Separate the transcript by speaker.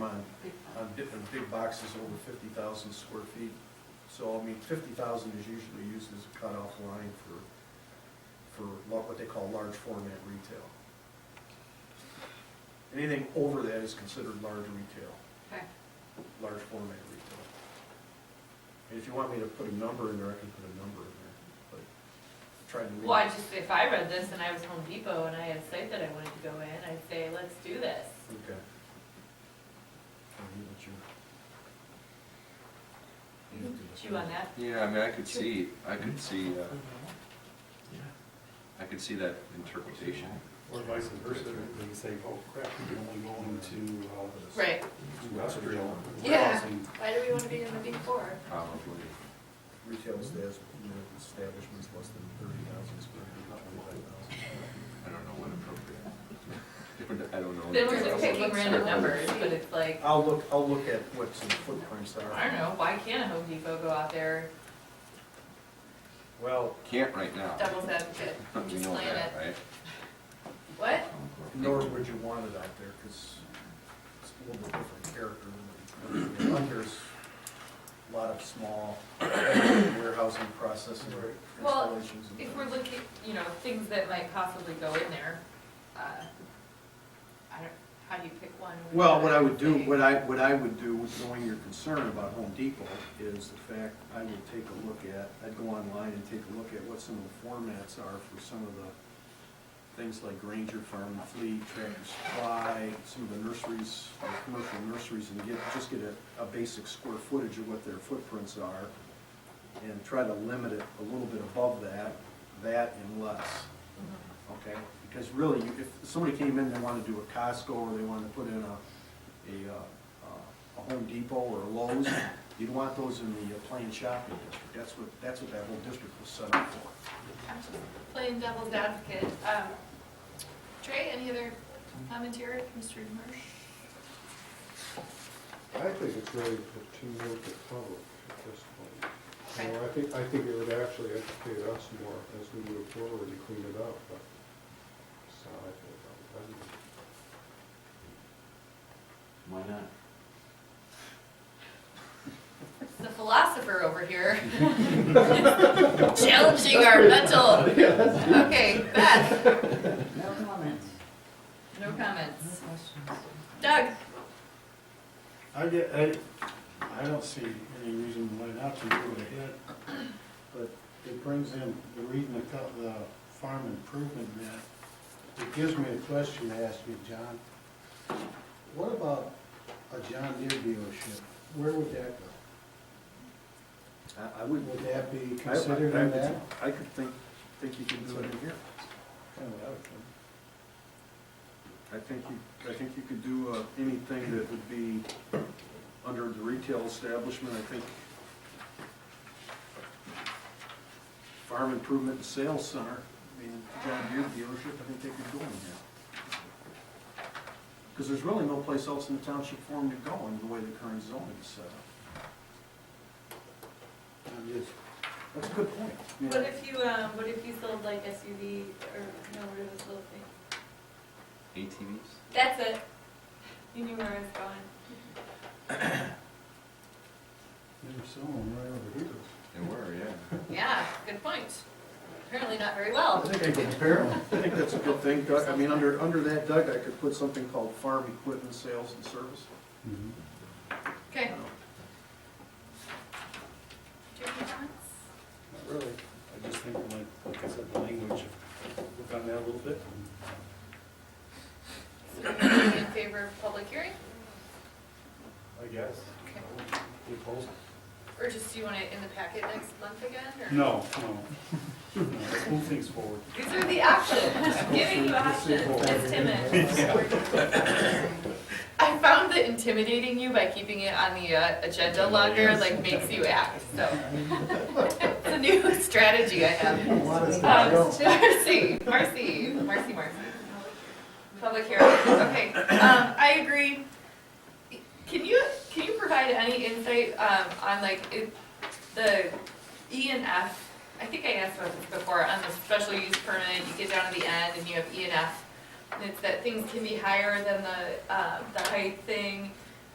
Speaker 1: uh, big box is over fifty thousand square feet. So, I mean, fifty thousand is usually used as a cutoff line for, for lo- what they call large format retail. Anything over that is considered large retail,
Speaker 2: Okay,
Speaker 1: large format retail. And if you want me to put a number in there, I can put a number in there, but try to. leave-
Speaker 2: well, I just, if I read this and I was Home Depot and I had a site that I wanted to go in, I'd say, let's do this.
Speaker 1: Okay. I need what you- you have to do.
Speaker 2: Chew on that.
Speaker 3: Yeah, I mean, I could see, I could see, uh, I could see that interpretation.
Speaker 4: Or vice versa, they can say, oh crap, we can only go into uh,
Speaker 2: Right,
Speaker 4: industrial.
Speaker 2: Yeah.
Speaker 4: warehousing."
Speaker 2: why do we wanna be in the big four?
Speaker 3: Probably.
Speaker 1: Retail stas- you know, establishments less than thirty thousand square feet, twenty-five thousand.
Speaker 3: I don't know what appropriate. I don't know.
Speaker 2: Then we're just picking random numbers, but it's like,
Speaker 1: I'll look, I'll look at what some footprints are.
Speaker 2: I don't know, why can't a Home Depot go out there,
Speaker 1: Well,
Speaker 3: Can't right now.
Speaker 2: devil's advocate,
Speaker 3: You
Speaker 2: just
Speaker 3: know
Speaker 2: playing
Speaker 3: that,
Speaker 2: it?
Speaker 3: right?
Speaker 2: What?
Speaker 1: nor would you want it out there, because it's a little bit different character. than what you- There's a lot of small warehousing processing or
Speaker 2: Well,
Speaker 1: installations. and
Speaker 2: If we're
Speaker 1: things.
Speaker 2: looking, you know, things that might possibly go in there, uh, I don't, how do you pick one?
Speaker 1: Well, what I would do,
Speaker 2: Say-
Speaker 1: what I, what I would do, knowing your concern about Home Depot, is the fact, I would take a look at, I'd go online and take a look at what some of the formats are for some of the things like Granger Farm and Fleet, Tractor Supply, some of the nurseries, like commercial nurseries, and get, just get a, a basic square footage of what their footprints are, and try to limit it a little bit above that, that and less okay? Because really, you- if somebody came in, they wanted to do a Costco, or they wanted to put in a, a, uh, uh, a Home Depot or a Lowe's, you'd want those in the uh, plain shopping district, that's what, that's what that whole district was set up for.
Speaker 2: I'm just playing devil's advocate. Um, Trey, any other commentary, Mr. Marsh?
Speaker 5: I think it's really too much to cover at this point.
Speaker 2: Okay.
Speaker 5: You know, I think, I think it would actually educate us more as we move forward and clean it up, but, so I think, I'm, I'm-
Speaker 6: Why not?
Speaker 2: It's The philosopher over here. Challenging our mental. Okay, Beth,
Speaker 7: No comments.
Speaker 2: no
Speaker 7: No
Speaker 2: comments.
Speaker 7: questions.
Speaker 2: Doug?
Speaker 4: I get, I, I don't see any reason why not to do it ahead, but it brings in, the reading the, co- the farm improvement map, it gives me a question to ask you, John. What about a John Deere dealership? Where would that go?
Speaker 1: I, I would.
Speaker 4: Would that be considered in that?
Speaker 1: I could think, think you could do it in here. I think you, I think you could do uh, anything that would be under the retail establishment, I think. Farm improvement and sales center, I mean, John Deere dealership, I think they could go in here. Because there's really no place else in the township for them to go in the way the current zoning is set up.
Speaker 4: I'm just,
Speaker 1: That's a good point. I mean,
Speaker 2: What if you, um, what if you sold like SUV or, no, what are those little things?
Speaker 3: ATVs?
Speaker 2: That's it. You knew where I was going.
Speaker 4: there's someone right over here.
Speaker 3: They were, yeah.
Speaker 2: Yeah, good point. Apparently not very well.
Speaker 1: I think I can compare 'em. I think that's a good thing, Doug. I mean, under, under that, Doug, I could put something called farm equipment sales and service.
Speaker 4: Mm-hmm.
Speaker 2: Okay. Do you have any comments?
Speaker 4: Not really. I just think, like, like I said, the language, look on that a little bit.
Speaker 2: So everybody in favor of public hearing?
Speaker 4: I guess.
Speaker 2: Okay.
Speaker 4: You opposed?
Speaker 2: Or just, do you want it in the packet next month again, or?
Speaker 4: No, no. No, Let's move things forward.
Speaker 2: These are the options, I'm giving you options, Ms. Timmons. I found that intimidating you by keeping it on the uh, agenda longer, like, makes you act, so. It's a new strategy I have. Um, Marcy, Marcy, Marcy, Marcy. Public hearing, okay, um, I agree. Can you, can you provide any insight, um, on like, if the E and F, I think I asked about this before, on the special use permit, you get down to the end and you have E and F. And it's that things can be higher than uh, the, um, the height thing,